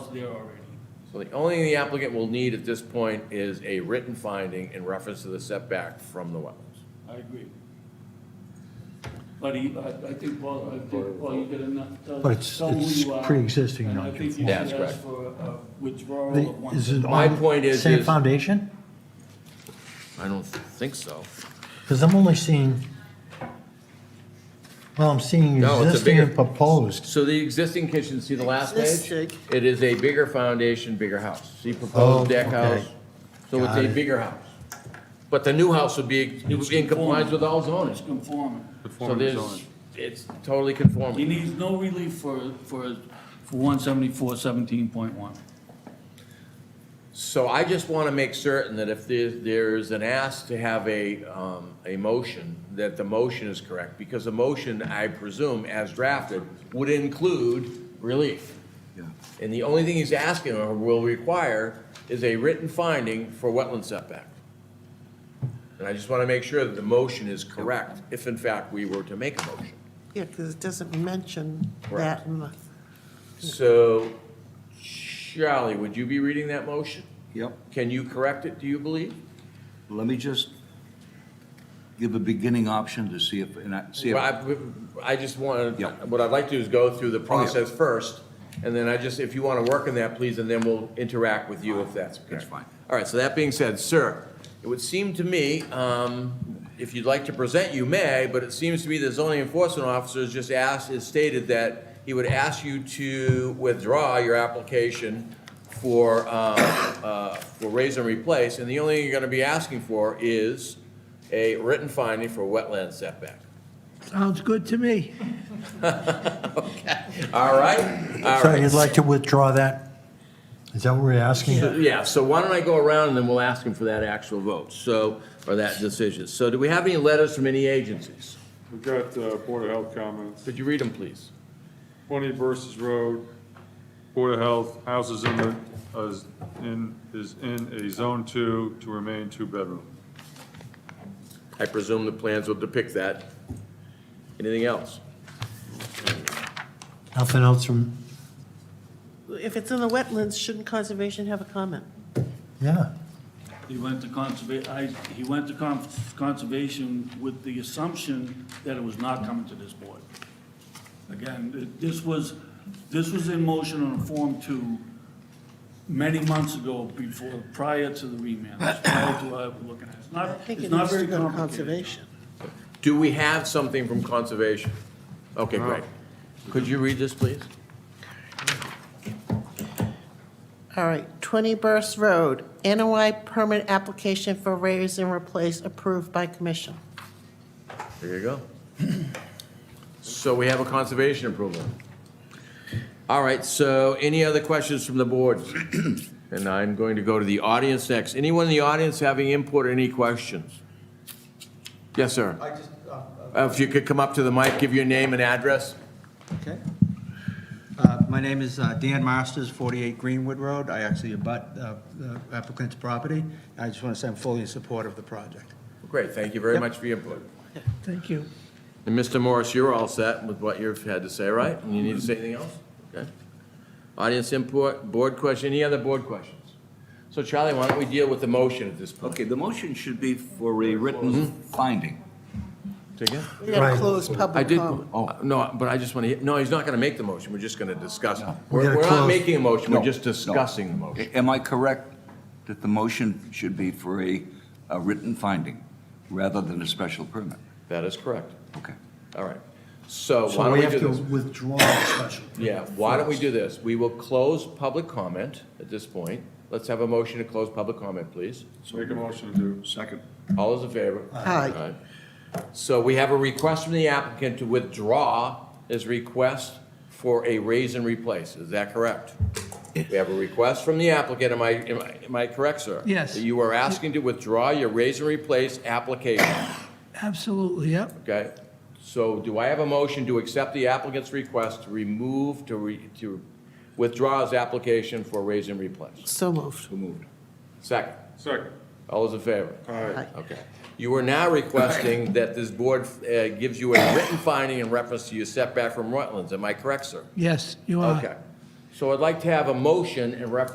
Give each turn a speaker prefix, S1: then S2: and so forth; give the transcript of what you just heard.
S1: there already.
S2: So the only thing the applicant will need at this point is a written finding in reference to the setback from the wetlands.
S1: I agree. But he, I, I think, Paul, I think, Paul, you did enough. to
S3: But it's-
S1: tell who
S3: it's
S1: you are,
S3: pre-existing
S1: And I think you should
S2: nonconformity. That's
S1: ask
S2: correct.
S1: for a withdrawal
S3: The-
S1: of one.
S3: Is it
S1: sentence.
S2: My
S3: on
S2: point
S3: the
S2: is-
S3: same
S2: is-
S3: foundation?
S2: I don't think so.
S3: Because I'm only seeing, well, I'm seeing
S2: No, it's a
S3: existing and
S2: bigger-
S3: proposed.
S2: So the existing kitchen, see the last page? It is a bigger foundation, bigger house. See
S3: Oh,
S2: proposed deck house?
S3: okay.
S2: So it's
S3: Got
S2: a
S3: it.
S2: bigger house. But the new house would be, it would be in compliance with all zoning.
S1: It's conforming.
S2: So there's, it's totally conforming.
S1: He needs no relief for, for, for one seventy-four seventeen point one.
S2: So I just want to make certain that if there, there's an ask to have a, um, a motion, that the motion is correct, because a motion, I presume, as drafted, would include relief. And the only thing he's asking or will require is a written finding for wetland setback. And I just want to make sure that the motion is correct, if in fact we were to make a motion.
S4: Yeah, because it doesn't mention
S2: Correct.
S4: that in the,
S2: So, Charlie, would you be reading that motion?
S5: Yep,
S2: Can you correct it, do you believe?
S5: let me just give a beginning option to see if, and I, see if,
S2: Well, I I just want,
S5: Yeah. Oh,
S2: what I'd like to do is go through the process first, and then I just, if you want to work on that, please, and then we'll interact with you if that's okay.
S5: That's fine.
S2: All right, so that being said, sir, it would seem to me, um, if you'd like to present, you may, but it seems to me the zoning enforcement officer has just asked, has stated that he would ask you to withdraw your application for, um, uh, for raise and replace, and the only thing you're going to be asking for is a written finding for wetland setback.
S6: Sounds good to me.
S2: All right, all
S3: So you'd
S2: right.
S3: like to withdraw that? Is that what we're asking?
S2: So- Yeah, so why don't I go around and then we'll ask him for that actual vote, so, or that decision. So do we have any letters from any agencies?
S7: We've got uh, Board of Health comments.
S2: Could you read them, please?
S7: 20 Versus Road, Board of Health, houses in the, is in, is in a Zone 2 to remain two-bedroom.
S2: I presume the plans will depict that. Anything else?
S3: Nothing else from,
S4: if it's in the wetlands, shouldn't conservation have a comment?
S3: yeah.
S1: He went to conserva, I, he went to con- conservation with the assumption that it was not coming to this board. Again, th- this was, this was in motion on a Form Two many months ago before, prior to the remand, prior to what I'm looking at. It's
S4: I
S1: not,
S4: think
S1: it's
S4: it
S1: not
S4: needs
S1: very
S4: to go to
S1: complicated.
S4: conservation.
S2: Do we have something from conservation? Okay, great. Could you read this, please?
S4: All right, 20 Burst Road, NOI permit application for raise and replace approved by commission.
S2: There you go. So we have a conservation approval. All right, so any other questions from the board? And I'm going to go to the audience next. Anyone in the audience having input or any questions? Yes, sir.
S8: I just, uh, uh,
S2: Uh, If you could come up to the mic, give your name and address.
S8: okay. Uh, My name is uh, Dan Masters, 48 Greenwood Road. I actually abut uh, the applicant's property. I just want to say I'm fully in support of the project.
S2: Great, thank you very much for your input.
S6: Thank you.
S2: And Mr. Morris, you're all set with what you've had to say, right? And you need to say anything else? Okay. Audience input, board question, any other board questions? So Charlie, why don't we deal with the motion at this point?
S5: okay, the motion should be for a written Mm-hmm. finding.
S2: Say again?
S4: We gotta
S3: Right.
S4: close
S2: I
S4: public
S2: did,
S4: comment.
S2: oh, no, but I just want to, no, he's not going to make the motion, we're just going to discuss.
S3: We
S2: We're
S3: gotta
S2: we're not
S3: close.
S2: making a motion,
S5: No,
S2: we're just
S5: no.
S2: discussing the motion.
S5: A- Am I correct that the motion should be for a, a written finding rather than a special permit?
S2: That is correct.
S5: Okay.
S2: All right. So why
S3: So
S2: don't
S3: we
S2: we
S3: have
S2: do
S3: to
S2: this?
S3: withdraw the special.
S2: Yeah, why don't we do this? We will close public comment at this point. Let's have a motion to close public comment, please.
S7: Make a motion to.
S5: Second.
S2: All those in favor?
S4: Aye.
S2: Aye. So we have a request from the applicant to withdraw his request for a raise and replace. Is that correct? We have a request from the applicant. Am I, am I, am I correct, sir?
S6: Yes.
S2: That You are asking to withdraw your raise and replace application,
S6: Absolutely, yep.
S2: okay? So do I have a motion to accept the applicant's request to remove, to re, to withdraw his application for raise and replace?
S4: So moved.
S2: Second.
S7: Second.
S2: All those in favor?
S7: Aye.
S2: Okay. You are now requesting that this board uh, gives you a written finding in reference to your setback from wetlands. Am I correct, sir?
S6: Yes, you are.
S2: Okay. So I'd like to have a motion in reference